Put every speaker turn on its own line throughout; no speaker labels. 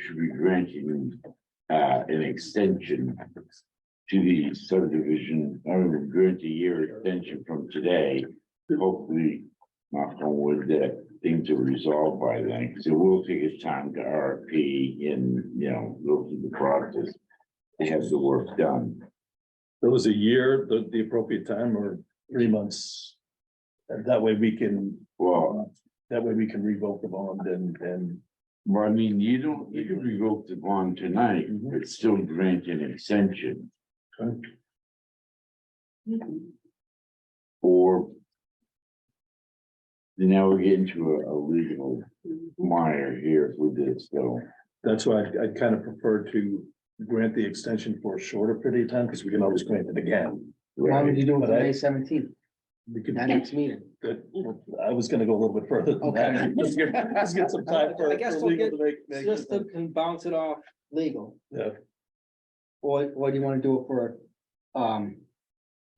should be granting uh an extension to the subdivision, I would grant a year extension from today. Hopefully, knock on wood, that things are resolved by then, because it will take us time to RFP and, you know, go through the process to have the work done.
There was a year, the, the appropriate time or three months. And that way we can,
Well,
that way we can revoke the bond and, and
Well, I mean, you don't, you can revoke the bond tonight,
Mhm.
but still grant an extension.
Okay.
Or. Now we get into a, a legal mire here with this, so.
that's why I, I kind of prefer to grant the extension for a shorter period of time, because we can always grant it again.
Why would
right,
you do it
But I-
for May seventeenth,
We could,
that next meeting?
I was gonna go a little bit further than that.
Okay.
Let's get, let's get some time for.
I guess
for
we'll
legal
get
to make- make-
System can bounce it off legal,
Yeah,
or, or do you wanna do it for, um,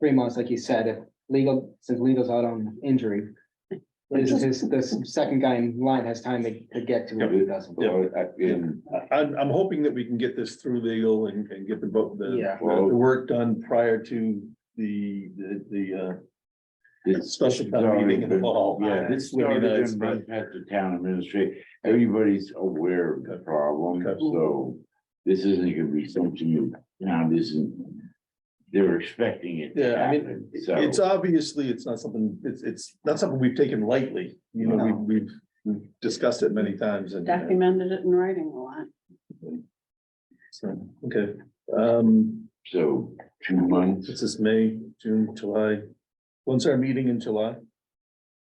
three months, like you said, if legal, since legal's out on injury. This is, this second guy in line has time to, to get to it, if he doesn't.
Yeah.
Well, I- and,
I, I'm, I'm hoping that we can get this through legal and, and get the, vote- the,
Yeah.
the work done prior to the, the, the, uh,
this-
special town meeting involved.
Yeah, this
Would be
started
nice,
in by at the town administration, everybody's aware of the problem,
Okay.
so. This isn't gonna be something you, town isn't, they're expecting it to
Yeah, I mean,
happen, so.
It's obviously, it's not something, it's, it's not something we've taken lightly, you know,
No.
we've, we've, we've discussed it many times and. uh,
documented it in writing a lot.
so, uh, Okay, um,
So two months,
this is May, June, July. When's our meeting in July?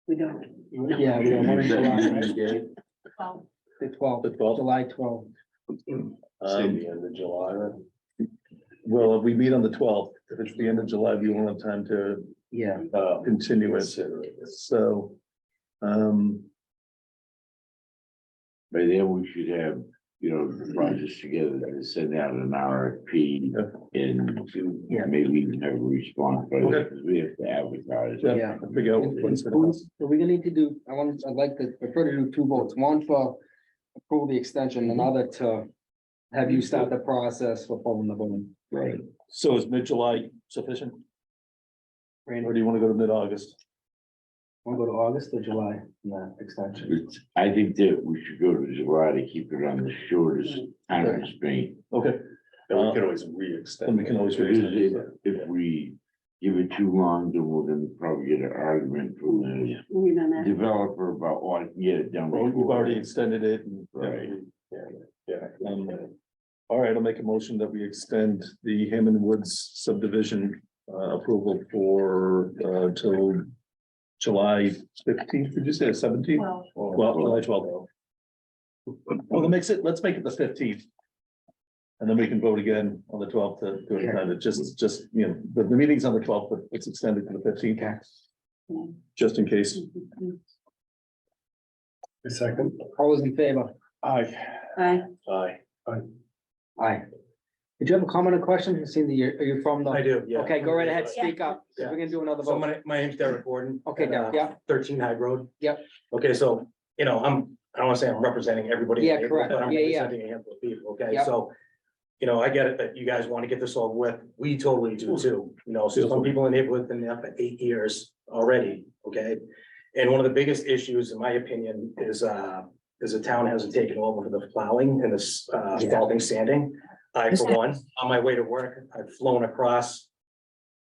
We don't.
Yeah, we don't want to July,
Well,
the twelfth,
The twelfth?
July twelfth,
Um,
end of July, right?
well, if we meet on the twelfth, if it's the end of July, we won't have time to
yeah,
Uh,
continue it, so. Um,
by then we should have, you know,
Mm-hmm.
the projects together to send out an RFP and to
Yeah.
maybe even have a response, but
Okay.
we have to advertise.
yeah,
yeah.
figure out what's.
So we're gonna need to do, I want, I'd like to prefer to do two votes, one for approve the extension, another to have you start the process for pulling the bone.
Right,
So is mid-July sufficient,
Randy,
or do you want to go to mid-August?
wanna go to August or July, no, extension?
It's- I think that we should go to July to keep it on the shortest time restraint.
Okay,
and we could always re-extend.
and Mm-hmm. we can always.
Because if, if we give it too long, then we're gonna probably get an argument from the
We don't have.
developer about why you get it done.
Well, we've
before.
already extended it and.
Right.
Yeah.
Um, All right, I'll make a motion that we extend the Hammond Woods subdivision uh, approval for uh till July fifteenth, did you say seventeenth?
Well,
Well, July twelfth. Well, that makes it, let's make it the fifteenth. And then we can vote again on the twelfth to do it, kind of just, just, you know, the, the meeting's on the twelfth, but it's extended to the fifteenth,
Okay,
just in case.
A second.
all those in favor?
Aye.
I,
Aye.
Aye. Did you have a comment or question? You seem that you're, are you from the?
do,
Okay, go right ahead, speak up, 'cause we're gonna do another
So
vote.
my, my name's Derek Gordon.
Okay,
and, uh,
Derek, yeah.
Thirteen High Road.
Yep.
Okay, so, you know, I'm, I don't wanna say I'm representing everybody. in
Yeah,
April,
correct.
But I'm
Yeah, yeah.
representing a handful of people, okay,
Yep.
so. You know, I get it that you guys wanna get this all with, we totally do too, you know, so some people in the neighborhood have been there for eight years already, okay? And one of the biggest issues, in my opinion, is, uh, is the town hasn't taken over for the plowing and this, uh,
Yeah.
faulting sanding. I, for one, on my way to work, I've flown across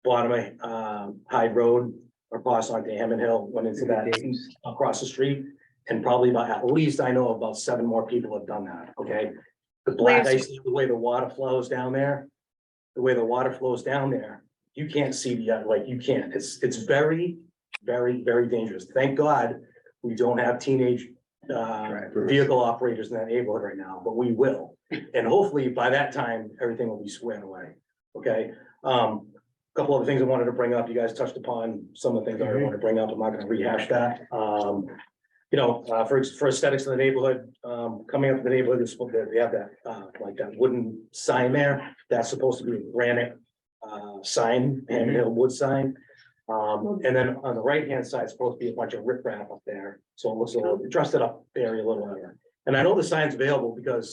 bottom of, um, Hyde Road, across onto Hammond Hill, went into that, across the street. And probably about, at least I know about seven more people have done that, okay? The black
Where's-
ice, the way the water flows down there, the way the water flows down there, you can't see the, uh, like, you can't, it's, it's very, very, very dangerous. Thank God, we don't have teenage, uh, vehicle operators in that neighborhood right now, but we will. And hopefully by that time, everything will be squared away, okay? Um, a couple of things I wanted to bring up, you guys touched upon some of the things I wanted to bring up, I'm not gonna rehash that, um. You know, uh, for, for aesthetics in the neighborhood, um, coming up in the neighborhood, it's, they have that, uh, like that wooden sign there, that's supposed to be a granite. Uh, sign, hand built wood sign, um, and then on the right-hand side, it's supposed to be a bunch of riprap up there, so it looks a little, dressed it up very a little. And I know the sign's available because